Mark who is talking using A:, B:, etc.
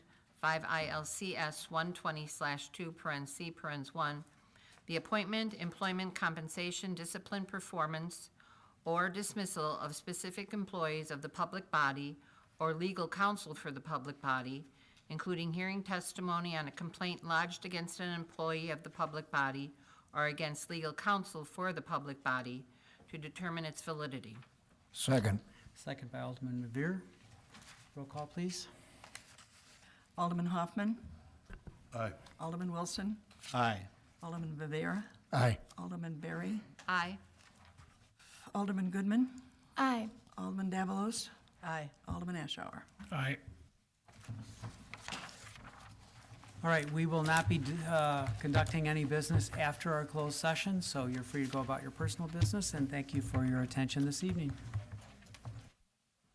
A: 5 ILCS 120/2, paren C, parens 1, the appointment, employment, compensation, discipline, performance, or dismissal of specific employees of the public body or legal counsel for the public body, including hearing testimony on a complaint lodged against an employee of the public body or against legal counsel for the public body to determine its validity.
B: Second.
C: Second by Alderman Revere. Roll call, please.
D: Alderman Hoffman.
B: Aye.
D: Alderman Wilson.
C: Aye.
D: Alderman Rivera.
B: Aye.
D: Alderman Berry.
A: Aye.
D: Alderman Goodman.
E: Aye.
D: Alderman Davalos.
A: Aye.
D: Alderman Ashower.
B: Aye.
C: All right, we will not be uh, conducting any business after our closed session, so you're free to go about your personal business, and thank you for your attention this evening.